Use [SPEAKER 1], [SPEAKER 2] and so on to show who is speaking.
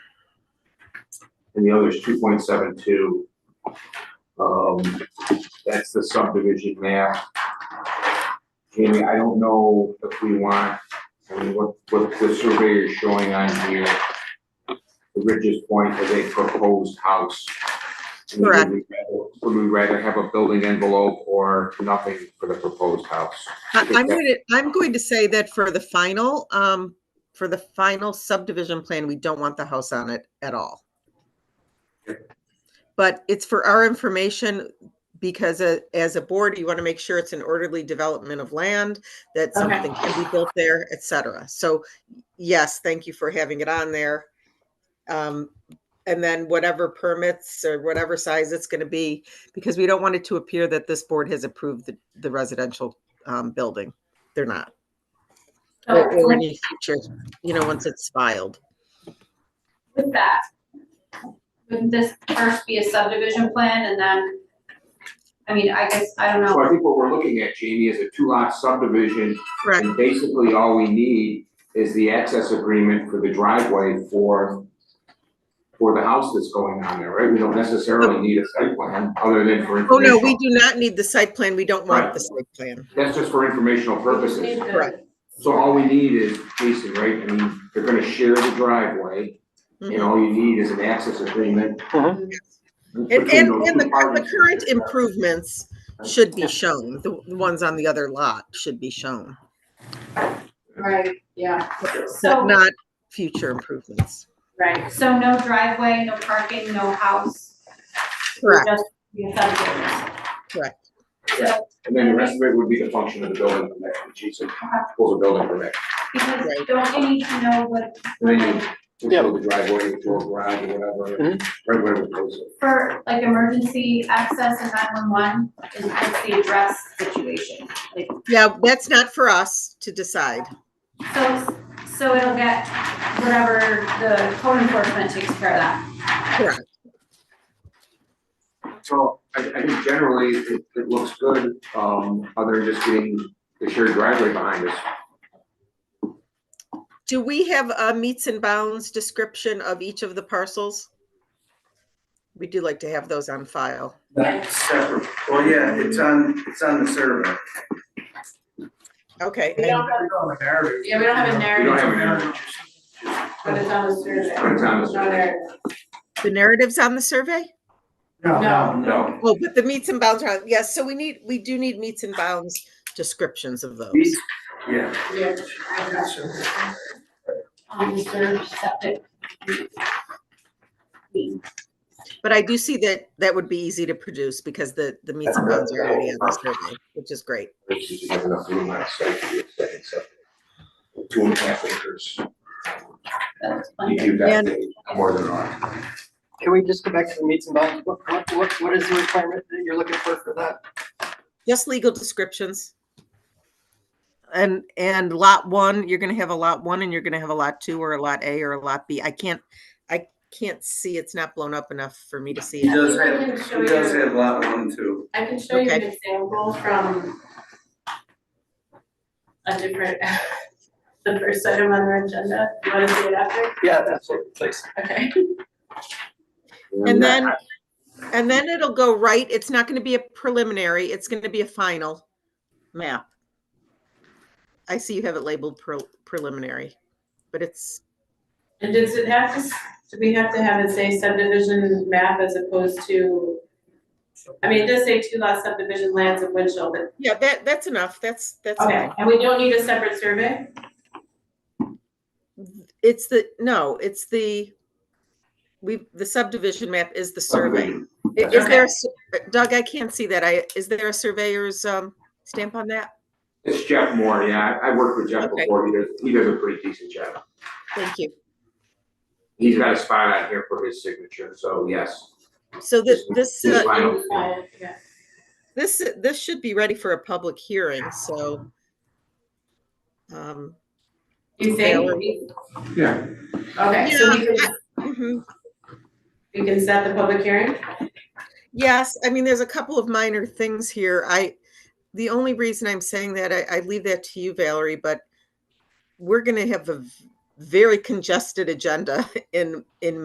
[SPEAKER 1] and the other is two point seven two. Um, that's the subdivision map. Jamie, I don't know if we want, I mean, what, what the surveyor is showing on here. The richest point is a proposed house. Would we
[SPEAKER 2] Correct.
[SPEAKER 1] rather- Would we rather have a building envelope or nothing for the proposed house?
[SPEAKER 2] I- I'm going to, I'm going to say that for the final, um, for the final subdivision plan, we don't want the house on it at all. But it's for our information because a- as a board, you want to make sure it's an orderly development of land, that
[SPEAKER 3] Okay.
[SPEAKER 2] something can be built there, et cetera. So yes, thank you for having it on there. Um, and then whatever permits or whatever size it's going to be, because we don't want it to appear that this board has approved the, the residential um, building. They're not. Or,
[SPEAKER 3] Okay, so
[SPEAKER 2] or any future, you know, once it's filed.
[SPEAKER 3] With that, would this first be a subdivision plan and then, I mean, I guess, I don't
[SPEAKER 1] So I
[SPEAKER 3] know.
[SPEAKER 1] think what we're looking at, Jamie, is a two-lot subdivision
[SPEAKER 2] Correct.
[SPEAKER 1] And basically, all we need is the access agreement for the driveway for, for the house that's going on there, right? We don't necessarily need a site plan, other than for
[SPEAKER 2] Oh, no, we
[SPEAKER 1] informational.
[SPEAKER 2] do not need the site plan. We don't want
[SPEAKER 1] Right.
[SPEAKER 2] the site plan.
[SPEAKER 1] That's just for informational purposes.
[SPEAKER 2] Correct.
[SPEAKER 1] So all we need is, Jason, right, I mean, they're gonna share the driveway, and
[SPEAKER 2] Mhm.
[SPEAKER 1] all you need is an access agreement.
[SPEAKER 2] Mm-hmm. And,
[SPEAKER 1] between
[SPEAKER 2] and,
[SPEAKER 1] those
[SPEAKER 2] and the,
[SPEAKER 1] two
[SPEAKER 2] the
[SPEAKER 1] parties.
[SPEAKER 2] current improvements should be shown. The the ones on the other lot should be shown,
[SPEAKER 3] Right, yeah.
[SPEAKER 2] not,
[SPEAKER 3] So,
[SPEAKER 2] not future improvements.
[SPEAKER 3] right, so no driveway, no parking, no house.
[SPEAKER 2] Correct.
[SPEAKER 3] Just be a subdivision.
[SPEAKER 2] Correct.
[SPEAKER 3] So,
[SPEAKER 1] And then the rest of it would be the function of the building permit, Jason pulls a building permit.
[SPEAKER 3] because
[SPEAKER 2] Right.
[SPEAKER 3] don't you need to know what,
[SPEAKER 1] And then
[SPEAKER 3] like,
[SPEAKER 1] you
[SPEAKER 4] Yeah.
[SPEAKER 1] build the driveway, or garage, or whatever,
[SPEAKER 4] Mhm.
[SPEAKER 2] Mm-hmm.
[SPEAKER 1] right where it goes.
[SPEAKER 3] for like emergency access and nine-one-one, is is the address situation? Like,
[SPEAKER 2] Yeah, that's not for us to decide.
[SPEAKER 3] So, so it'll get whatever the code enforcement takes care of that.
[SPEAKER 1] So I, I think generally it, it looks good, um, other than just getting the shared driveway behind us.
[SPEAKER 2] Do we have a meets and bounds description of each of the parcels? We do like to have those on file.
[SPEAKER 5] That's separate. Well, yeah, it's on, it's on the survey.
[SPEAKER 2] Okay.
[SPEAKER 6] We don't have a narrative.
[SPEAKER 3] Yeah, we don't have a
[SPEAKER 1] We don't
[SPEAKER 3] narrative,
[SPEAKER 1] have an area,
[SPEAKER 3] but it's on the survey.
[SPEAKER 1] But it's on the
[SPEAKER 3] It's not there.
[SPEAKER 2] The narratives on the survey?
[SPEAKER 3] No.
[SPEAKER 1] no.
[SPEAKER 2] Oh, but the meets and bounds are, yes, so we need, we do need meets and bounds descriptions of those.
[SPEAKER 5] Meets- Yeah.
[SPEAKER 3] Yeah.
[SPEAKER 5] survey.
[SPEAKER 3] On the survey, septic.
[SPEAKER 2] But I do see that that would be easy to produce because the, the meets and bounds are already on the survey, which is great.
[SPEAKER 1] Which is you have enough room on site to get second septic. Two and a half acres,
[SPEAKER 3] That's
[SPEAKER 1] you
[SPEAKER 3] fine.
[SPEAKER 1] do that
[SPEAKER 2] And-
[SPEAKER 1] thing more than enough.
[SPEAKER 4] Can we just go back to the meets and bounds? What, what, what- what is the requirement that you're looking for for that?
[SPEAKER 2] Just legal descriptions. And, and lot one, you're gonna have a lot one and you're gonna have a lot two or a lot A or a lot B. I can't, I can't see, it's not blown up enough for me to see
[SPEAKER 5] He
[SPEAKER 2] it.
[SPEAKER 5] does have, he does have lot one too.
[SPEAKER 7] I can show you an
[SPEAKER 2] Okay.
[SPEAKER 7] example from a different, the first item on our agenda. You want to see it after?
[SPEAKER 4] Yeah, absolutely, please.
[SPEAKER 7] Okay.
[SPEAKER 2] And then, and then it'll go right, it's not gonna be a preliminary, it's gonna be a final map. I see you have it labeled pre- preliminary, but it's,
[SPEAKER 7] And does it have to, s- do we have to have it say subdivision map as opposed to, I mean, it does say two lot subdivision lands of Winchell, but,
[SPEAKER 2] yeah, that, that's enough, that's, that's
[SPEAKER 7] okay,
[SPEAKER 2] fine.
[SPEAKER 7] and we don't need a separate survey?
[SPEAKER 2] It's the, no, it's the, we, the subdivision map is the survey.
[SPEAKER 1] Subdivision.
[SPEAKER 2] I- Is there, a sur- Doug, I can't see that, I, is there a surveyor's, um, stamp on that?
[SPEAKER 1] It's Jeff Moore, yeah, I, I worked with Jeff
[SPEAKER 2] Okay.
[SPEAKER 1] before, he does, he does a pretty decent job.
[SPEAKER 2] Thank you.
[SPEAKER 1] He's got a spot on here for his signature, so yes.
[SPEAKER 2] So this, this,
[SPEAKER 1] His
[SPEAKER 2] uh,
[SPEAKER 1] final-
[SPEAKER 7] Fine, yeah.
[SPEAKER 2] This, this should be ready for a public hearing, so. um,
[SPEAKER 7] You think?
[SPEAKER 1] Yeah.
[SPEAKER 7] Okay, so we can,
[SPEAKER 2] mhm.
[SPEAKER 7] we can set the public hearing?
[SPEAKER 2] Yes, I mean, there's a couple of minor things here. I, the only reason I'm saying that, I, I leave that to you, Valerie, but we're gonna have a v- very congested agenda in, in